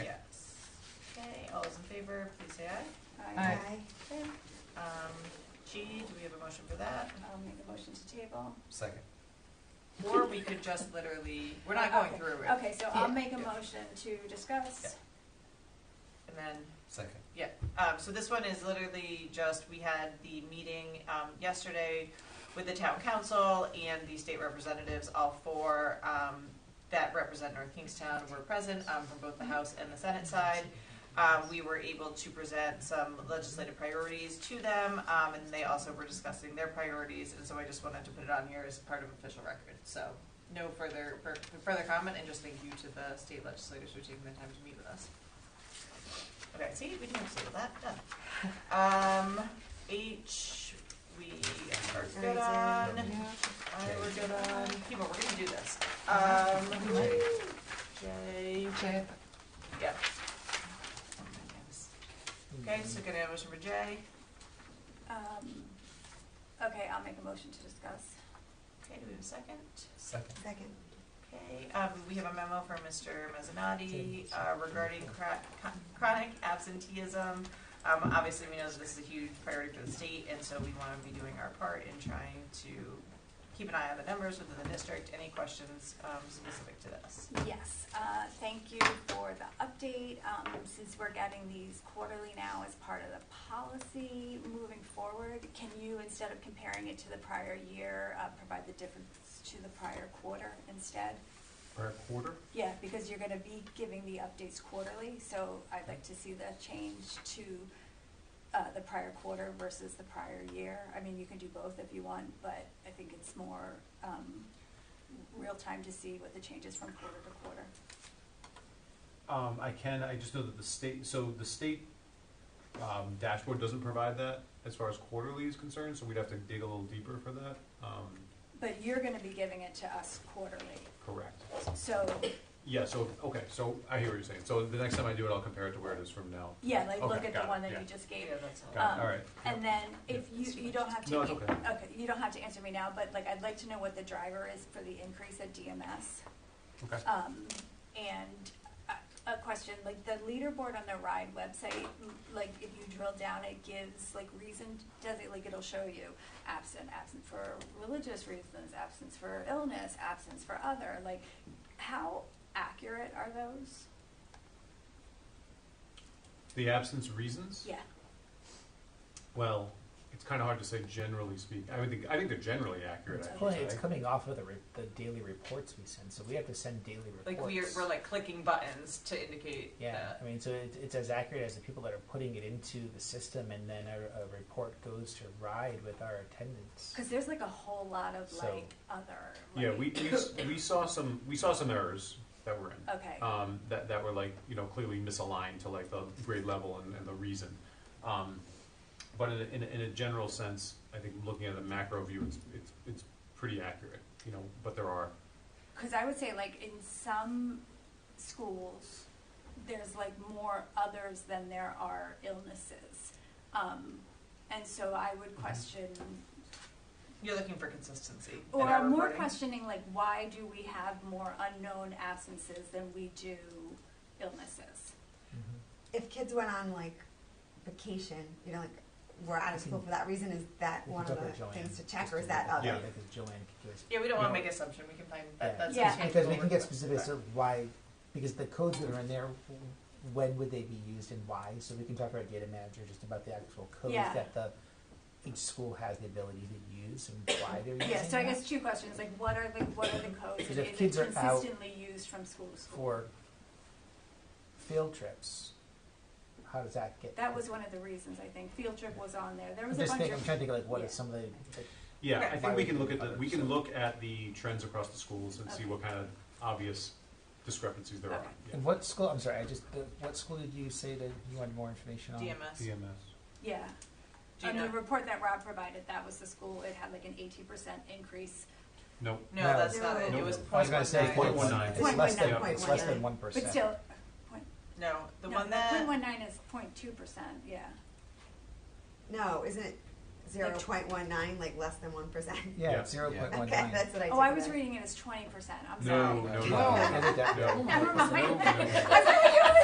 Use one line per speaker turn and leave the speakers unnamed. favor, please say aye.
Aye.
Okay,
Um, G, do we have a motion for that?
I'll make a motion to table.
Second.
Or we could just literally, we're not going
Okay.
through it,
Okay, so I'll
Yeah.
make a
Yeah.
motion to discuss.
and then
Second.
Um, so this one is literally just, we had the meeting, um, yesterday with the town council and the state representatives, all four, um, that represent North Kingstown were present, um, from both the House and the Senate side. Um, we were able to present some legislative priorities to them, um, and they also were discussing their priorities, and so I just wanted to put it on here as part of official record, so. No further, fur- further comment, and just thank you to the state legislators for taking the time to meet with us. Okay, see, we didn't have to say that, done. Um, H, we are good on, I we're good on, people, we're gonna do this. Um,
J.
J,
J,
yeah.
Mm-hmm.
Okay, so can I have a motion for J?
Um, Okay, I'll make a motion to discuss.
Okay, do we have a second?
Second.
Second.
Okay, um, we have a memo from Mr. Mezzanotte, uh, regarding chro- chronic absenteeism. Um, obviously, we know that this is a huge priority for the state, and so we wanna be doing our part in trying to keep an eye on the numbers within the district. Any questions, um, specific to this?
Yes, uh, thank you for the update. Um, Since we're getting these quarterly now as part of the policy moving forward, can you, instead of comparing it to the prior year, uh, provide the difference to the prior quarter instead?
For a quarter?
Yeah, because you're gonna be giving the updates quarterly, so I'd like to see the change to, uh, the prior quarter versus the prior year. I mean, you can do both if you want, but I think it's more, um, real time to see what the changes from quarter to quarter.
Um, I can, I just know that the state, so the state, um, dashboard doesn't provide that as far as quarterly is concerned, so we'd have to dig a little deeper for that, um,
But you're gonna be giving it to us quarterly,
correct.
so,
Yeah, so, okay, so I hear what you're saying, so the next time I do it, I'll compare it to where it is from now.
yeah, like, look
Okay,
at the
got it,
one that
yeah.
you just gave.
Yeah, that's all.
Got
Um,
it, all right.
And then if you, you don't have to.
No, it's okay.
you don't have to answer me now, but like, I'd like to know what the driver is for the increase at DMS.
Okay.
Um, and a, a question, like the leaderboard on the RIDE website, m- like if you drill down, it gives like reason, does it, like it'll show you absent, absent for religious reasons, absence for illness, absence for other, like how accurate are those?
The absence reasons?
Yeah,
Well, it's kinda hard to say generally speaking, I would think, I think they're generally accurate, I
Well,
would
it's
say.
coming off of the, re- the daily reports we send, so we have to send daily reports.
Like we're, we're like clicking buttons to indicate
Yeah,
that.
I mean, so it, it's as accurate as the people that are putting it into the system, and then a, a report goes to RIDE with our attendance.
cause there's like a whole lot of
So-
like other,
Yeah,
like-
we, we, s- we saw some, we saw some errors that were in.
Okay.
um, that, that were like, you know, clearly misaligned to like the grade level and, and the reason. Um, but in a, in a, in a general sense, I think looking at the macro view, it's, it's, it's pretty accurate, you know, but there are,
Because I would say, like, in some schools, there's like more others than there are illnesses. Um, and so I would
Mm-hmm.
question,
You're looking for consistency in
or
our
I'm more
reporting.
questioning, like, why do we have more unknown absences than we do illnesses?
Mhm.
if kids went on like vacation, you know, like we're out of school for that reason, is that
We
one
can
of
talk with
the
Joanne,
things to
just
check or is
look
that
at
other?
Yeah.
Because Joanne could give us.
Yeah, we don't wanna
No.
make assumption, we can find, that,
Yeah.
that's.
Yeah.
Because we
what we're-
can get specifics of why, because the codes that are in there, when would they be used and why? So we can talk to our data manager just about the actual codes
Yeah.
that the, each school has the ability to use and why they're using
Yeah, so I
that.
guess two questions, like, what are the, what are the codes?
Because
and
if
Is it
kids are out
consistently used from school to school?
For field trips, how does that get?
That was one of the reasons, I think. Field trip was on there. There
I'm
was a
just
bunch
thinking, I'm
of,
trying to think of like what
yeah.
is some of the,
yeah,
Okay.
I think we can look at the, we can look at the trends across the schools and see
Okay.
what kind of obvious discrepancies there are.
Okay.
Yeah.
and what school, I'm sorry, I just, the- what school did you say that you wanted more information on?
DMS.
DMS.
yeah.
Do you
On
know?
the report that Rob provided, that was the school, it had like an eighteen percent increase.
No,
No,
No.
that's not it, it
No.
was
I was
point
gonna
one
say,
nine.
Point
it's,
one nine.
it's less than,
Point
it's
one
less
nine.
than one percent.
But still, point,
No, the
no,
one
point
that,
one nine is point two percent, yeah.
No, isn't it zero
Like-
point one nine, like less than one percent?
Yeah,
Yeah.
it's zero point one
Okay,
nine.
that's what I took.
Oh, I
it
was
as.
reading it as twenty percent, I'm
no,
sorry.
no, no,
No,
no.
edit that.
No.
Never mind.
No, no, no.